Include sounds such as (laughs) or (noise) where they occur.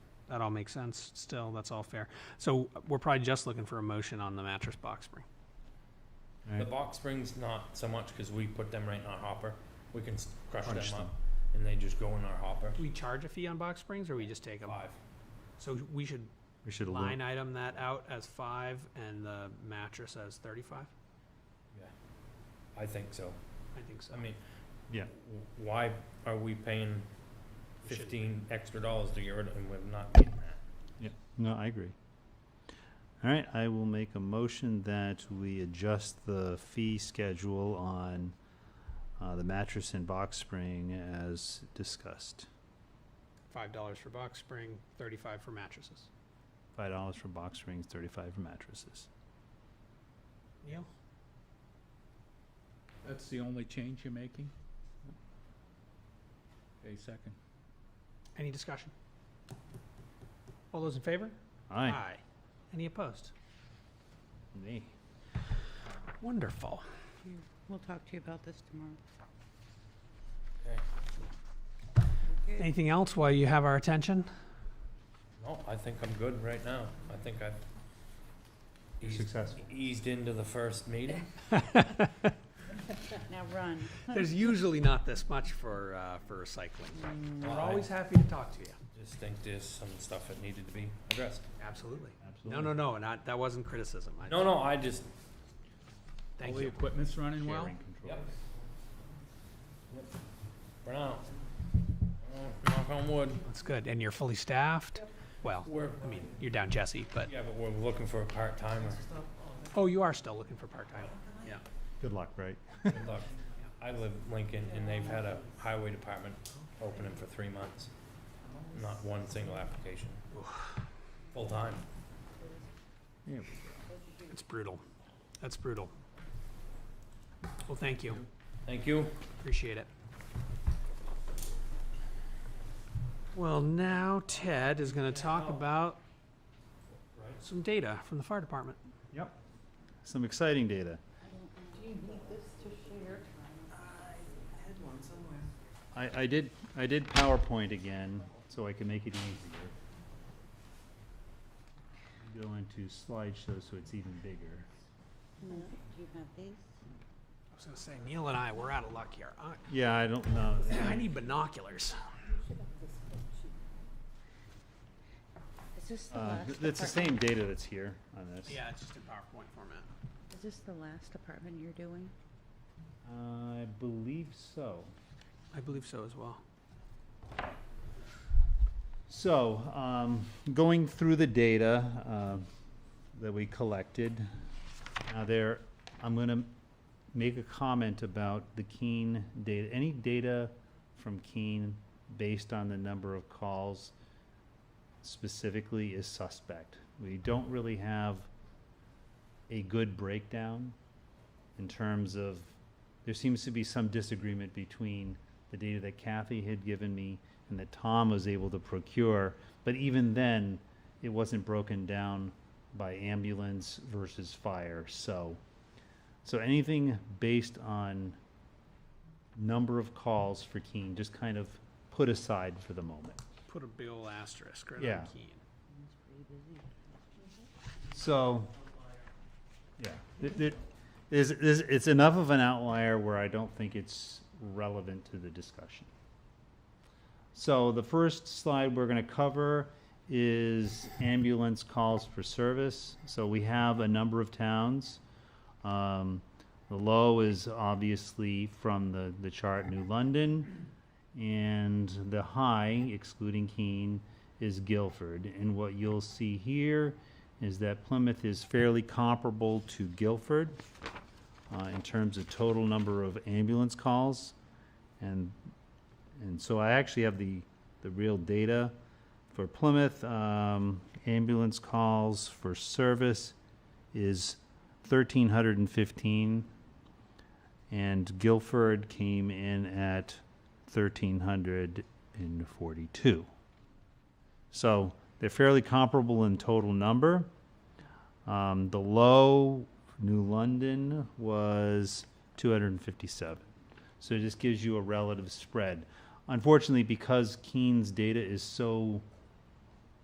That all makes sense still. That's all fair. So we're probably just looking for a motion on the mattress box spring. The box springs not so much because we put them right in our hopper. We can s- crush them Crunch them. up and they just go in our hopper. Do we charge a fee on box springs or we just take them? Five. So we should We should look. line item that out as five and the mattress as thirty-five? I think so. I think so. I mean. Yeah. w- Why are we paying We shouldn't. fifteen extra dollars to get rid of, and we're not getting that? No, I agree. All right, I will make a motion that we adjust the fee schedule on uh, the mattress and box spring as discussed. Five dollars for box spring, thirty-five for mattresses. Five dollars for box springs, thirty-five for mattresses. Neil? That's the only change you're making? Okay, second. Any discussion? All those in favor? Aye. Ah. Any opposed? Nay. Wonderful. We'll talk to you about this tomorrow. Anything else while you have our attention? No, I think I'm good right now. I think I've You're eased, successful. eased into the (laughs) first meeting. Now run. There's usually not this much for, uh, for recycling, but Well, we're I always happy to talk to you. Just think there's some stuff that needed to be addressed. Absolutely. No, Absolutely. no, no, not, that wasn't criticism. I- No, no, I just, All Thank the you. equipment's running well? Sharing control. Yep. for now, uh, knock on wood, That's good. And you're fully staffed? Well, we're, I mean, you're down Jesse, but, yeah, but we're looking for a part-timer. oh, you are still looking for part-time. Yeah. Good luck, right? Good luck. I live Lincoln, and they've had a highway department opening for three months. Not one single application. Full-time. It's brutal. That's brutal. Well, thank you. Thank you. Appreciate it. Well, now Ted is going to talk about some data from the fire department. Some exciting data. Do you need this to share? I, I did, I did PowerPoint again, so I can make it easier. Go into slideshow so it's even bigger. No, do you have I these? was going to say, Neil and I, we're out of luck here. I- Yeah, I don't know. (sighs) I need binoculars. You should have this spreadsheet. Is this the Uh, last? th- It's the apart- same data that's here on this. Yeah, it's just in PowerPoint format. Is this the last apartment you're doing? I believe so. I believe so as well. So, um, going through the data, uh, that we collected, now there, I'm gonna make a comment about the Keene data, any data from Keene based on the number of calls specifically is suspect. We don't really have a good breakdown in terms of, there seems to be some disagreement between the data that Kathy had given me and that Tom was able to procure. But even then, it wasn't broken down by ambulance versus fire. So, so anything based on number of calls for Keene, just kind of put aside for the moment. Put a big ol' asterisk right Yeah. on Keene. It's pretty busy. So, yeah, th- th- is, is, it's enough of an outlier where I don't think it's relevant to the discussion. So the first slide we're gonna cover is ambulance calls for service. So we have a number of towns. Um, the low is obviously from the, the chart, New London. And the high, excluding Keene, is Guilford. And what you'll see here is that Plymouth is fairly comparable to Guilford uh, in terms of total number of ambulance calls. And, and so I actually have the, the real data for Plymouth. Um, ambulance calls for service is 1,315. And Guilford came in at 1,342. So they're fairly comparable in total number. Um, the low, New London, was 257. So it just gives you a relative spread. Unfortunately, because Keene's data is so